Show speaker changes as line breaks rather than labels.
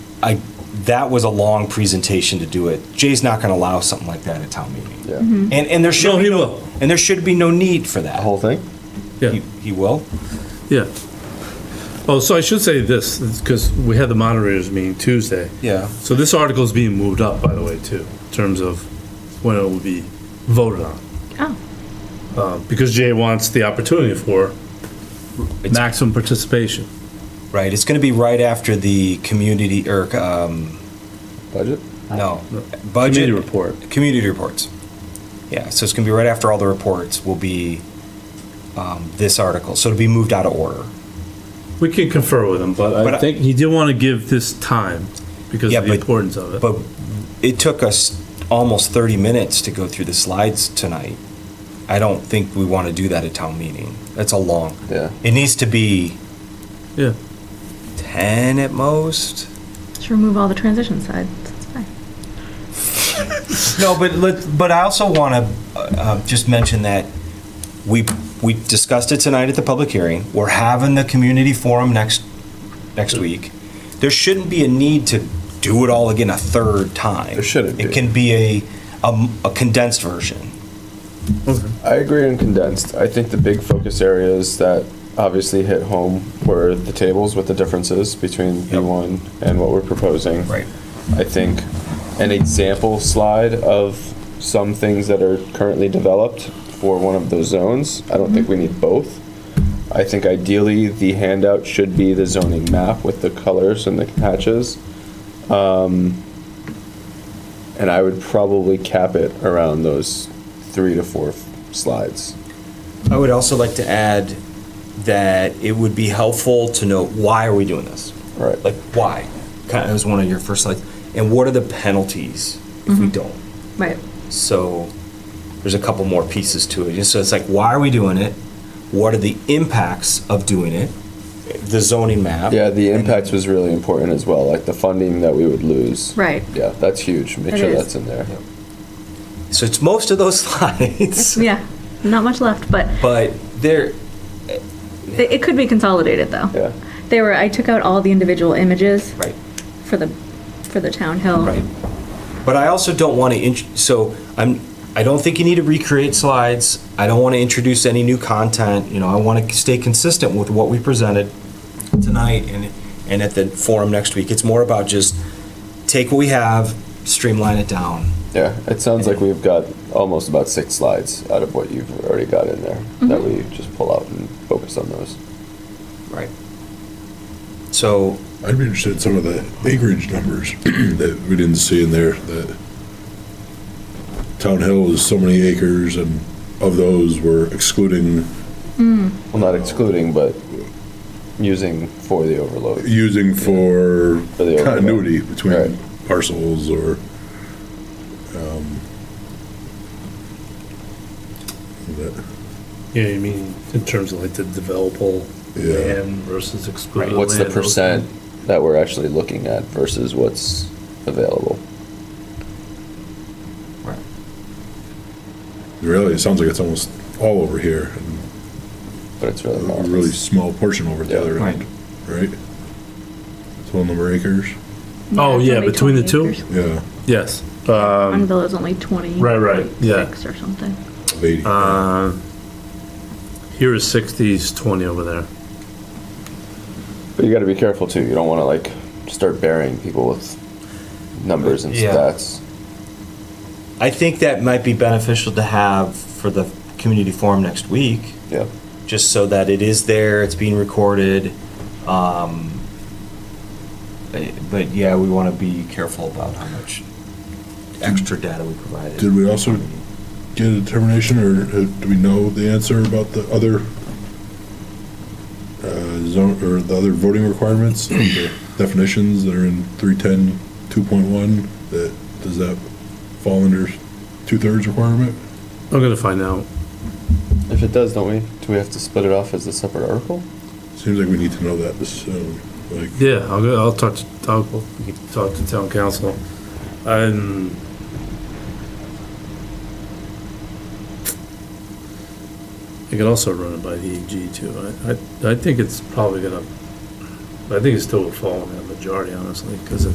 I, that was a long presentation to do it. Jay's not going to allow something like that at town meeting.
Yeah.
And, and there should
No,
be
he
no,
will. Oh,
and there should be no need for that.
The whole thing?
Yeah.
He he will?
Yeah. Oh, so I should say this, because we had the moderators meeting Tuesday.
Yeah.
So this article is being moved up, by the way, too, in terms of when it will be voted on.
Oh.
Uh, Because Jay wants the opportunity for
It's-
maximum participation.
Right, it's going to be right after the community, or, um,
Budget?
no, budget.
Committee report.
Community reports. Yeah, so it's going to be right after all the reports will be um, this article. So it'll be moved out of order.
We can confer with him, but
But I-
I think he did want to give this time because
Yeah,
of the
but-
importance of it.
But it took us almost 30 minutes to go through the slides tonight. I don't think we want to do that at town meeting. That's a long.
Yeah.
It needs to be
Yeah.
10 at most.
Just remove all the transition sides. It's fine.
No, but let, but I also want to uh, just mention that we we discussed it tonight at the public hearing. We're having the community forum next next week. There shouldn't be a need to do it all again a third time.
There shouldn't
It
be.
can be a, a a condensed version.
I agree on condensed. I think the big focus areas that obviously hit home were the tables with the differences between B1 and what we're proposing. I think an example slide of some things that are currently developed for one of those zones. I don't think we need both. I think ideally the handout should be the zoning map with the colors and the hatches. Um, and I would probably cap it around those three to four f- slides.
I would also like to add that it would be helpful to know why are we doing this?
Right.
Like why? Kind of, it was one of your first slides. And what are the penalties if we don't?
Right.
So there's a couple more pieces to it. So it's like, why are we doing it? What are the impacts of doing it? The zoning map.
Yeah, the impacts was really important as well, like the funding that we would lose.
Right.
Yeah, that's huge. Make
It
sure
is.
that's in there.
So it's most of those slides,
Yeah. Not much left, but
but there,
it, it could be consolidated though.
Yeah.
They were. I took out all the individual images
right,
for the for the town hill.
right. But I also don't want to, int- so I'm, I don't think you need to recreate slides. I don't want to introduce any new content, you know, I want to stay consistent with what we presented tonight and, and at the forum next week. It's more about just take what we have, streamline it down.
Yeah, it sounds like we've got almost about six slides out of what you've already got in there that we just pull out and focus on those.
Right. So,
I'd be interested in some of the acreage numbers that we didn't see in there, that Town Hill is so many acres, and of those, we're excluding,
Well, not excluding, but using for the overload.
using for
For the overlay.
continuity between
Right.
parcels or, um, that-
Yeah, you mean in terms of like the developable
Yeah.
land versus excluded land.
What's the
those kinds
percent that we're actually looking at versus what's available?
really, it sounds like it's almost all over here, and
But it's really
a
not.
really small portion over at the
Yeah.
other end, right? Total number of acres,
Oh,
it's
yeah,
only
between the
20
two?
acres.
yeah,
Yes. Uh,
Um,
One villa's only twenty.
Right, right, yeah.
Six or something.
of eighty.
Uh, Here is 60s, 20 over there.
But you got to be careful too. You don't want to like start burying people with numbers and
Yeah.
stats.
I think that might be beneficial to have for the community forum next week,
Yeah.
just so that it is there, it's being recorded. Um, eh, But yeah, we want to be careful about how much extra data we provide.
Did we also get a determination, or uh, do we know the answer about the other uh, zone, or the other voting requirements, the definitions that are in 310, 2.1, that, does that fall under two-thirds requirement?
I'm gonna find out.
If it does, don't we? Do we have to split it off as a separate article?
Seems like we need to know that soon, like,
Yeah, I'll go, I'll talk to, I'll go talk to town council. Um. I could also run it by the AG too. I, I, I think it's probably gonna, I think it's still a fall in that majority honestly, cause